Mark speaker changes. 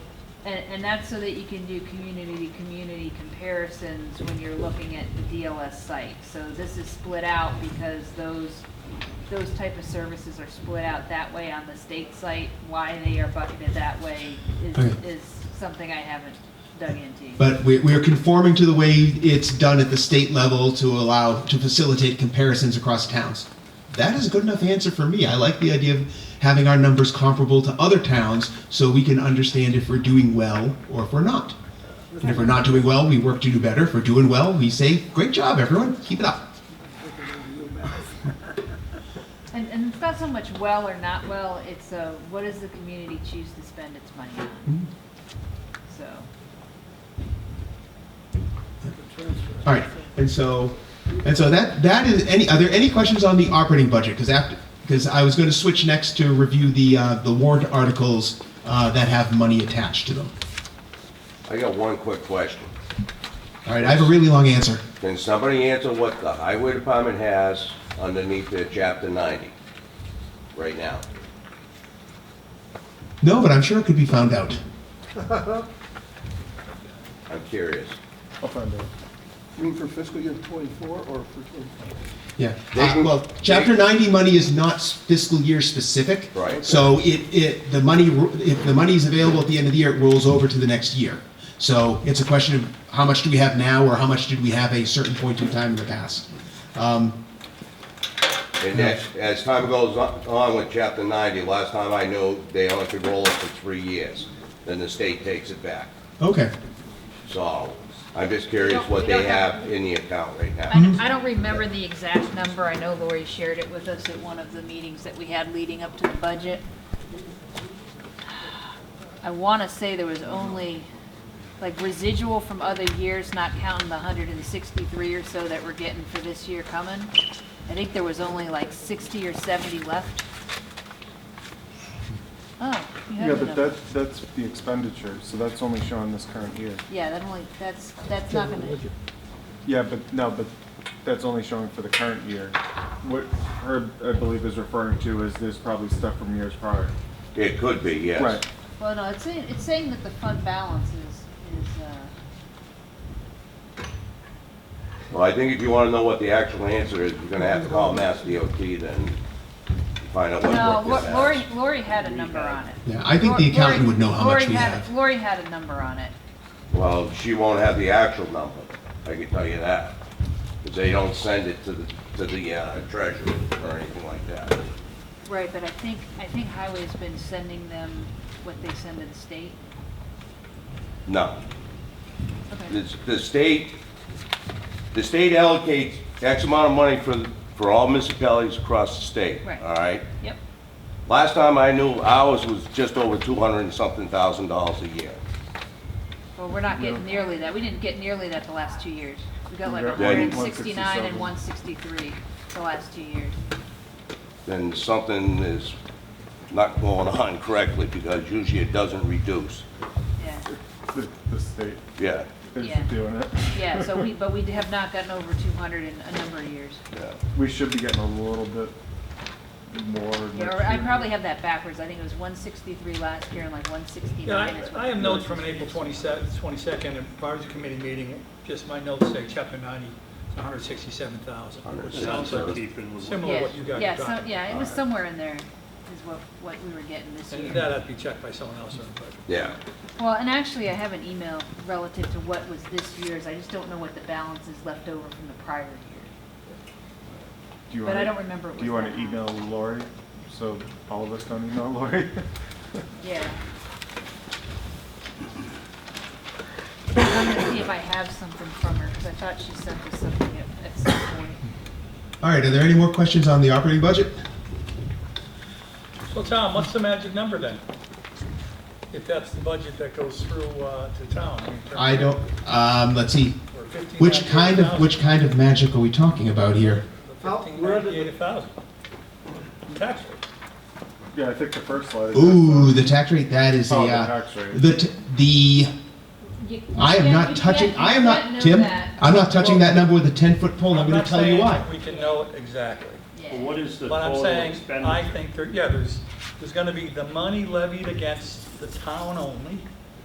Speaker 1: And, and that's so that you can do community-to-community comparisons when you're looking at the DLS site. So this is split out because those, those type of services are split out that way on the state site. Why they are bucketed that way is,
Speaker 2: Okay.
Speaker 1: is something I haven't dug into.
Speaker 2: But we, we are conforming to the way it's done at the state level to allow, to facilitate comparisons across towns. That is a good enough answer for me. I like the idea of having our numbers comparable to other towns so we can understand if we're doing well or if we're not. And if we're not doing well, we work to do better. If we're doing well, we say, great job, everyone, keep it up.
Speaker 1: And, and it's not so much well or not well, it's uh what does the community choose to spend its money
Speaker 2: Mm-hmm.
Speaker 1: on? So,
Speaker 2: All right, and so, and so that, that is, any, are there any questions on the operating budget? Because after, because I was going to switch next to review the, uh, the warrant articles uh, that have money attached to them.
Speaker 3: I got one quick question.
Speaker 2: All right, I have a really long answer.
Speaker 3: Can somebody answer what the highway department has underneath their chapter ninety right now?
Speaker 2: No, but I'm sure it could be found out.
Speaker 3: I'm curious.
Speaker 4: I'll find out. You mean for fiscal year twenty-four or for twenty-five?
Speaker 2: Yeah.
Speaker 3: They
Speaker 2: Uh,
Speaker 3: can-
Speaker 2: well, Chapter 90 money is not s- fiscal year specific.
Speaker 3: Right.
Speaker 2: So it, it, the money, ro- if the money is available at the end of the year, it rolls over to the next year. So it's a question of how much do we have now or how much did we have a certain point in time in the past? Um,
Speaker 3: And as, as time goes on- on with chapter ninety, last time I knew, they only could roll it for three years. Then the state takes it back.
Speaker 2: okay.
Speaker 3: So I'm just curious what they have in the account right
Speaker 1: I
Speaker 3: now.
Speaker 1: don't, I don't remember the exact number, I know Lori shared it with us at one of the meetings that we had leading up to the budget. I wanna say there was only, like residual from other years, not counting the hundred and sixty-three or so that we're getting for this year coming. I think there was only like sixty or seventy left. Oh, you have the
Speaker 5: Yeah, but
Speaker 1: number.
Speaker 5: that, that's the expenditure, so that's only showing this current year.
Speaker 1: Yeah, that only, that's, that's not gonna,
Speaker 5: Yeah, but, no, but that's only showing for the current year. What Herb, I believe, is referring to is there's probably stuff from years prior.
Speaker 3: It could be, yes.
Speaker 5: Right,
Speaker 1: well, no, it's saying, it's saying that the fund balance is, is, uh,
Speaker 3: Well, I think if you want to know what the actual answer is, you're going to have to call Mass DOT then find out
Speaker 1: no,
Speaker 3: what work
Speaker 1: Lo-
Speaker 3: this
Speaker 1: Lori,
Speaker 3: has.
Speaker 1: Lori had a number on it.
Speaker 2: Yeah, I think the
Speaker 1: Lori-
Speaker 2: accountant would know how much
Speaker 1: Lori
Speaker 2: we
Speaker 1: had-
Speaker 2: have.
Speaker 1: Lori had a number on it.
Speaker 3: Well, she won't have the actual number, I can tell you that. Because they don't send it to the, to the uh, treasurer or anything like that.
Speaker 1: Right, but I think, I think Highway's been sending them what they send to the state.
Speaker 3: No.
Speaker 1: Okay.
Speaker 3: The the state, the state allocates X amount of money for, for all municipalities across the state.
Speaker 1: Right.
Speaker 3: All right?
Speaker 1: Yep,
Speaker 3: Last time I knew, ours was just over 200 and something thousand dollars a year.
Speaker 1: well, we're not getting nearly that, we didn't get nearly that the last two years. We got like
Speaker 5: Yeah,
Speaker 1: hundred and
Speaker 5: 169.
Speaker 1: sixty-nine and one sixty-three the last two years.
Speaker 3: then something is not going on correctly, because usually it doesn't reduce.
Speaker 1: Yeah,
Speaker 5: the, the state
Speaker 3: Yeah,
Speaker 5: is
Speaker 1: Yeah.
Speaker 5: doing it.
Speaker 1: yeah, so we, but we have not gotten over two hundred in a number of years.
Speaker 3: yeah.
Speaker 5: We should be getting a little bit more next
Speaker 1: Yeah, or I
Speaker 5: year.
Speaker 1: probably have that backwards, I think it was one sixty-three last year and like one
Speaker 6: Yeah,
Speaker 1: sixty-nine is
Speaker 6: I, I
Speaker 1: what.
Speaker 6: have notes from an April 27th 22nd advisory committee meeting, just my notes say chapter 90, 167,000. which Sounds like similar to
Speaker 1: Yeah,
Speaker 6: what you guys
Speaker 1: yeah,
Speaker 6: are
Speaker 1: so-
Speaker 6: talking.
Speaker 1: Yeah, it was somewhere in there, is what, what we were getting this
Speaker 6: And
Speaker 1: year.
Speaker 6: that had to be checked by someone else, but.
Speaker 3: Yeah.
Speaker 1: Well, and actually, I have an email relative to what was this year's, I just don't know what the balance is left over from the prior year.
Speaker 5: Do you
Speaker 1: But I
Speaker 5: wanna-
Speaker 1: don't remember it
Speaker 5: Do you
Speaker 1: was
Speaker 5: want to
Speaker 1: that high.
Speaker 5: email Lori, so all of us don't email Lori?
Speaker 1: Yeah. I'm gonna see if I have something from her, because I thought she sent us something at, at some point.
Speaker 2: All right, are there any more questions on the operating budget?
Speaker 6: So Tom, what's the magic number then? If that's the budget that goes through uh, to town? in terms
Speaker 2: I don't, um, let's see,
Speaker 6: of- or 15,
Speaker 2: which kind of,
Speaker 6: 98,000,
Speaker 2: which kind of magic are we talking about here?
Speaker 6: or 15,
Speaker 4: Where did-
Speaker 6: 98,000. Tax rate.
Speaker 5: Yeah, I think the first slide is.
Speaker 2: Ooh, the tax rate, that is a,
Speaker 5: Oh, the
Speaker 2: uh,
Speaker 5: tax rate.
Speaker 2: the, t- the, I am not touching, I am not, Tim, I'm not touching that number with a ten-foot pole, and I'm gonna
Speaker 6: not
Speaker 2: tell you
Speaker 6: saying
Speaker 2: why.
Speaker 6: We can know it exactly.
Speaker 1: Yeah.
Speaker 7: Well, what is the
Speaker 6: But I'm
Speaker 7: total
Speaker 6: saying, I
Speaker 7: expenditure?
Speaker 6: think, there- yeah, there's, there's gonna be the money levied against the town only,